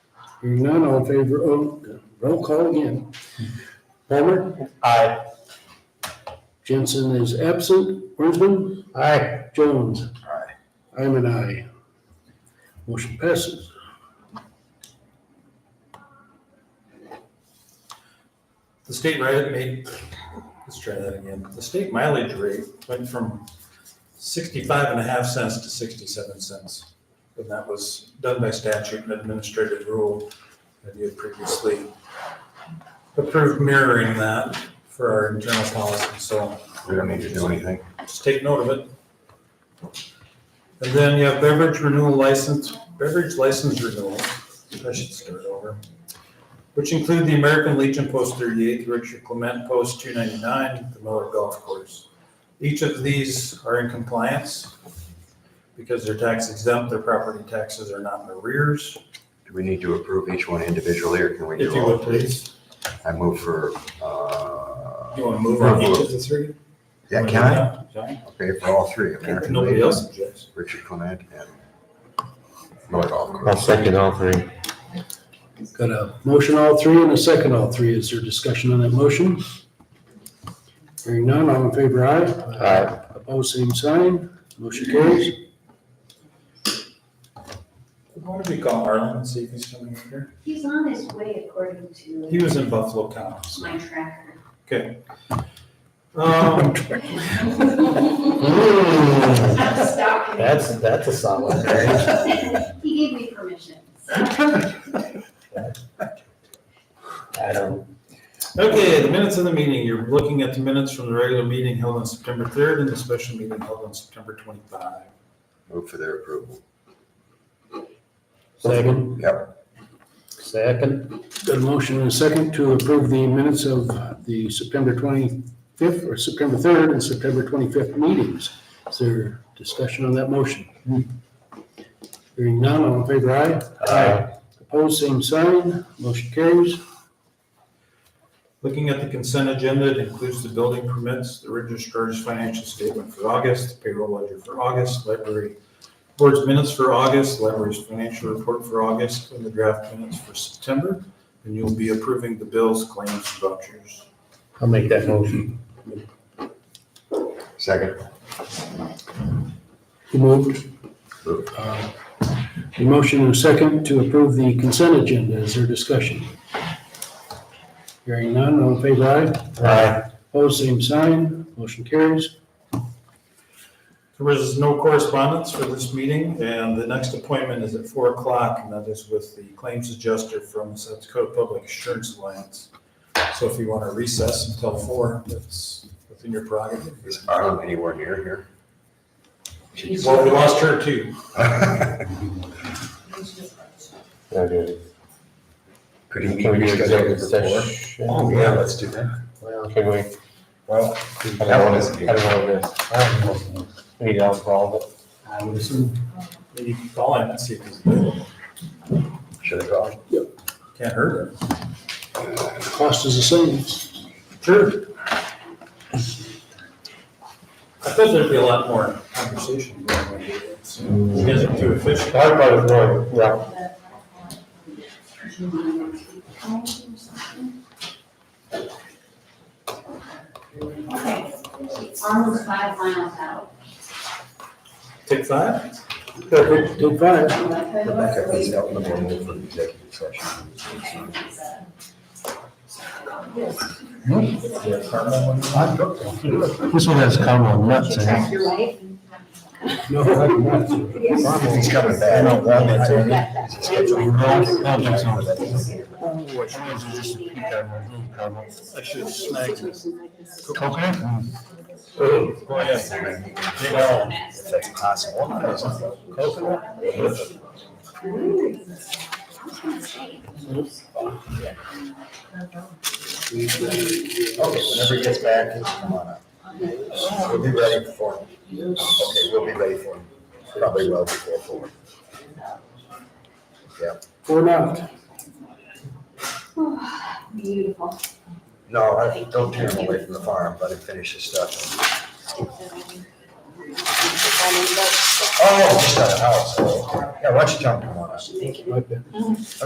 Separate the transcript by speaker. Speaker 1: Hearing none, all in favor, oh, roll call again. Palmer?
Speaker 2: Aye.
Speaker 1: Jensen is absent. Brinsman?
Speaker 2: Aye.
Speaker 1: Jones? Aye. I'm an aye. Motion passes.
Speaker 2: The state rate made, let's try that again. The state mileage rate went from sixty-five and a half cents to sixty-seven cents. And that was done by statute and administrative rule that you had previously approved mirroring that for our internal policy, so
Speaker 3: We don't need to do anything.
Speaker 2: just take note of it. And then you have beverage renewal license, beverage license renewal, I should start over, which include the American Legion Post thirty-eight, the Richard Clement Post two ninety-nine, the Miller Golf Course. Each of these are in compliance because they're tax exempt, their property taxes are not in arrears,
Speaker 3: Do we need to approve each one individually or can we
Speaker 2: if
Speaker 3: do
Speaker 2: you
Speaker 3: all?
Speaker 2: would please.
Speaker 3: I move for, uh,
Speaker 2: You wanna move on each of the three?
Speaker 3: yeah, can I?
Speaker 2: Fine.
Speaker 3: Okay, for all three. American
Speaker 2: Nobody
Speaker 3: Legion,
Speaker 2: else objects.
Speaker 3: Richard Clement and Miller Golf
Speaker 4: I'll
Speaker 3: Course.
Speaker 4: second all three.
Speaker 1: Got a motion all three and a second all three. Is there discussion on that motion? Hearing none, all in favor, aye.
Speaker 4: Aye.
Speaker 1: Opposed, same sign. Motion carries.
Speaker 2: Why don't we call Arlen and see if he's coming in here?
Speaker 5: He's on his way according
Speaker 2: He
Speaker 5: to
Speaker 2: was in Buffalo County. so-
Speaker 5: my tracker.
Speaker 2: Um,
Speaker 5: I'm stuck.
Speaker 4: That's, that's a solid.
Speaker 5: He gave me permission. so.
Speaker 4: I don't,
Speaker 2: okay, the minutes of the meeting, you're looking at the minutes from the regular meeting held on September third and the special meeting held on September twenty-five.
Speaker 3: Move for their approval.
Speaker 1: Second.
Speaker 3: Yep.
Speaker 1: Second. Got a motion and a second to approve the minutes of the September 25th or September 3rd and September 25th meetings. Is there discussion on that motion? Hearing none, all in favor, aye.
Speaker 4: Aye.
Speaker 1: Opposed, same sign. Motion carries.
Speaker 2: Looking at the consent agenda, it includes the building permits, the registrar's financial statement for August, the payroll ledger for August, library board's minutes for August, library's financial report for August, and the draft minutes for September. And you'll be approving the bills, claims, vouchers.
Speaker 4: I'll make that motion.
Speaker 3: Second.
Speaker 1: Who moved?
Speaker 3: Moved.
Speaker 1: Uh, A motion and a second to approve the consent agenda. Is there discussion? Hearing none, all in favor, aye.
Speaker 4: Aye.
Speaker 1: Opposed, same sign. Motion carries.
Speaker 2: There was no correspondence for this meeting, and the next appointment is at four o'clock, and that is with the claims adjuster from the South Dakota Public Assurance Alliance. So if you want to recess until four, that's within your prerogative.
Speaker 3: Is Arlen anywhere near here? She's-
Speaker 2: Well, we lost her too.
Speaker 4: Okay.
Speaker 3: Could
Speaker 4: Can
Speaker 3: he
Speaker 4: we
Speaker 3: be
Speaker 4: do
Speaker 3: rescheduled
Speaker 4: executive
Speaker 3: for four?
Speaker 4: session?
Speaker 3: Oh, yeah, let's do that.
Speaker 4: Well, Can we?
Speaker 3: Well,
Speaker 4: I don't want to, I don't want to. We need alcohol,
Speaker 2: I would assume. Maybe you can call him and see if he's available.
Speaker 3: should I call?
Speaker 2: Can't hurt her.
Speaker 1: Cost is the same.
Speaker 2: Sure. I thought there'd be a lot more conversation going on.
Speaker 3: Mm.
Speaker 2: You guys are too efficient.
Speaker 4: but. Our part is one, yeah.
Speaker 5: Okay, on the five miles out.
Speaker 2: Take five?
Speaker 1: Take five.
Speaker 3: Rebecca, please help me move for executive session.
Speaker 4: This one has common
Speaker 5: Did you track your wife?
Speaker 1: No, I'm not.
Speaker 3: He's coming back.
Speaker 4: I don't want it to.
Speaker 3: Is he scheduled?
Speaker 4: No, I don't think
Speaker 2: Oh, I should have snagged it.
Speaker 4: Okay.
Speaker 2: Oh, yes.
Speaker 3: If that's possible. Okay, Oh, whenever he gets back, he'll come on up. We'll be ready for him. Okay, we'll be ready for him. Probably well before four.
Speaker 1: Or not.
Speaker 5: Beautiful.
Speaker 3: No, I don't tear him away from the farm, let him finish his stuff. Oh, just out of house. Yeah, why don't you tell him to come on up?
Speaker 1: Like that.